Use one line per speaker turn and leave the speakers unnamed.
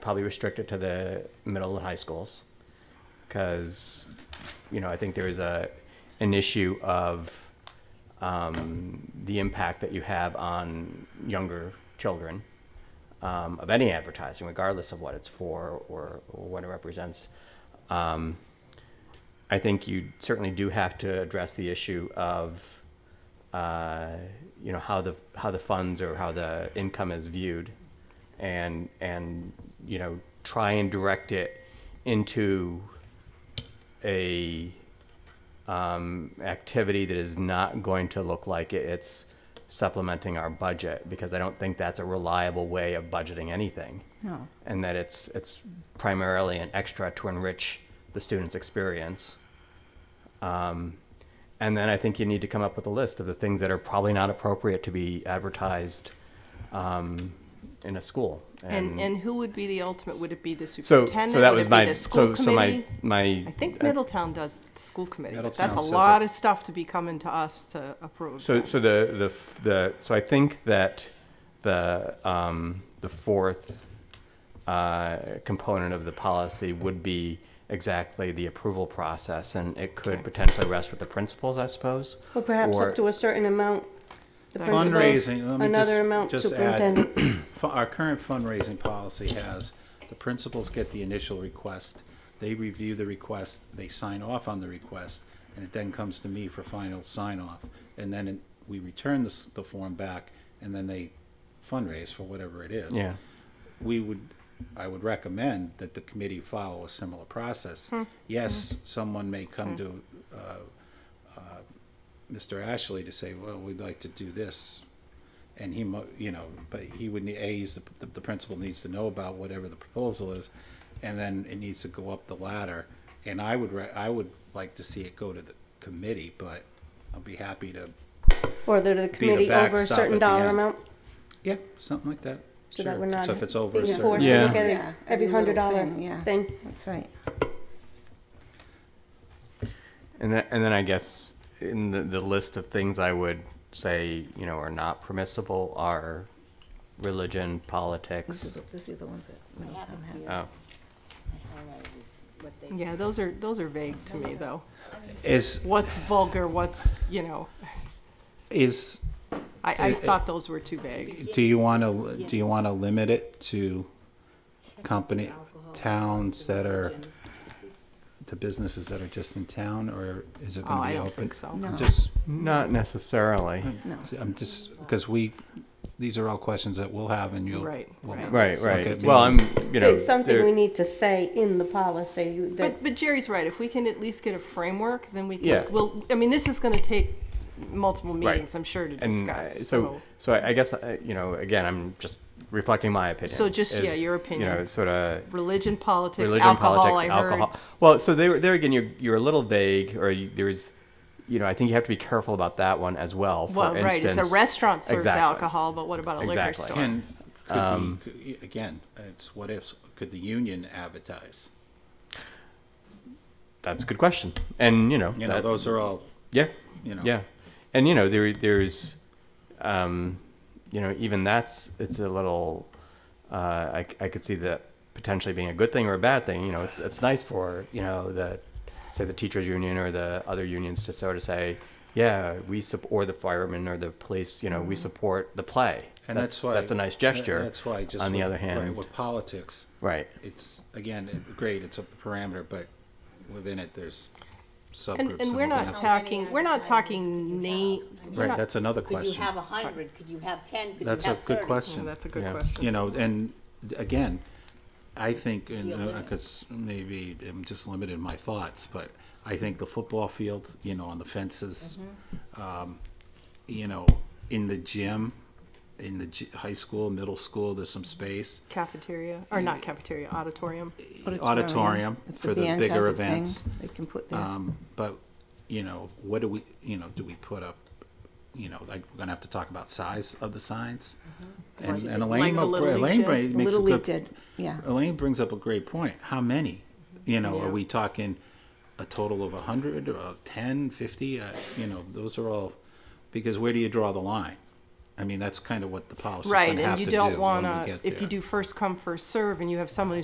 probably restrict it to the middle and high schools because you know I think there is a an issue of um, the impact that you have on younger children um, of any advertising, regardless of what it's for or, or what it represents. Um, I think you certainly do have to address the issue of uh, you know how the how the funds or how the income is viewed, and and you know try and direct it into a um, activity that is not going to look like it- it's supplementing our budget because I don't think that's a reliable way of budgeting anything.
Oh,
No.
And that it's it's primarily an extra to enrich the student's experience. Um, And then I think you need to come up with a list of the things that are probably not appropriate to be advertised um, in a school.
And, and who would be the ultimate? Would it be the
so,
superintendent?
so that
Would
was
it
my
be the school
so so my
committee?
my.
I think Middletown does the school committee, but that's a
Middletown says
lot
it.
of stuff to be coming to us to approve.
So
then.
so the the f- the so I think that the um, the fourth uh, component of the policy would be exactly the approval process, and it could potentially rest with the principals, I suppose.
Or perhaps
or-
up to a certain amount. The principals,
Fundraising, let me just-
Another amount
just add-
superintendent.
Fu- Our current fundraising policy has, the principals get the initial request, they review the request, they sign off on the request, and it then comes to me for final sign-off. And then it- we return the, s- the form back, and then they fundraise for whatever it is.
Yeah.
We would, I would recommend that the committee follow a similar process.
Hmm.
Yes, someone may come to uh, Mr. Ashley to say, well, we'd like to do this. And he, mo- you know, but he would, need A, he's the, the, the principal needs to know about whatever the proposal is. And then it needs to go up the ladder. And I would, re- I would like to see it go to the committee, but I'll be happy to,
Or they're the committee over a
backstop at
certain
the
dollar
end.
amount.
yeah, something like that.
So that
Sure.
we're not
So if it's over a
being
certain.
forced to
Yeah.
look at it
Yeah,
every
every
hundred
little
dollar
thing, yeah.
thing.
That's right.
And then, and then I guess in the, the list of things I would say, you know, are not permissible are religion, politics.
These are the ones that Middletown has.
Oh,
yeah, those are those are vague to me though.
Is,
What's vulgar? What's you know?
is,
I, I
It- it-
thought those were too vague.
do you want to, do you want to limit it to company, towns that are, to businesses that are just in town, or is it
Oh,
going to
I
be
don't
open?
think so.
No.
Just,
not necessarily.
I'm just, because we, these are all questions that we'll have and you'll.
Right,
we'll-
right.
Right,
So
right.
it-
Well, I'm, you know,
it's something
there-
we need to say in the policy. you- that-
But but Jerry's right. If we can at least get a framework, then we can.
Yeah.
Well, I mean, this is going to take multiple meetings, I'm sure, to
and uh,
discuss.
so, so I I guess, uh, you know, again, I'm just reflecting my opinion.
So just, yeah,
is,
your
You know,
opinion.
sort of
religion, politics,
religion,
alcohol.
politics,
I heard.
alcohol. Well, so there, there again, you're, you're a little vague, or you, there's, you know, I think you have to be careful about that one as well. For
Well, right. It's a
instance-
restaurant serves
Exactly.
alcohol, but what about a
Exactly.
liquor store?
Can, could
um,
the, could- again, it's what ifs, could the union advertise?
That's a good question, and you know,
You know,
that-
those are all,
Yeah.
you know.
Yeah. And you know, there there's um you know, even that's it's a little uh I I could see that potentially being a good thing or a bad thing. You know, it's it's nice for, you know, the say the teachers union or the other unions to sort of say, yeah, we sup- or the firemen or the police, you know, we support the play.
Mm-hmm. and that's why.
that's a nice gesture.
That's why just.
on the
with-
other hand,
Right, with politics,
right.
it's, again, it's great, it's a parameter, but within it, there's subgroups.
And, and we're
whatnot.
not talking. We're not talking
advertisements
name.
could you have?
Right, that's another
Could you
question.
have a hundred, could you have ten, could you have
That's
thirty?
a good question.
that's a good
Yeah.
question.
you know, and again, I think, and
Yeah, yeah.
because maybe I'm just limited in my thoughts, but I think the football field, you know, on the fences, um, you know, in the gym, in the g- high school, middle school, there's some space.
Cafeteria or not cafeteria? Auditorium.
Auditorium
If
for the
band has
bigger
a thing,
events.
They can put their,
Um, but, you know, what do we, you know, do we put up, you know, like, we're gonna have to talk about size of the signs. And, and
Mm-hmm. Like
Elaine,
the Little League
Elaine
did.
bra- makes a
Little
good
League did, yeah.
Elaine brings up a great point. How many? You know,
Yeah.
are we talking a total of 100 or 10, 50? Uh, you know, those are all because where do you draw the line? I mean, that's kind of what the policy's
Right,
gonna have
and
to
you
do
don't
when we
wanna,
get
if
there.
you do first come, first serve, and you have someone who's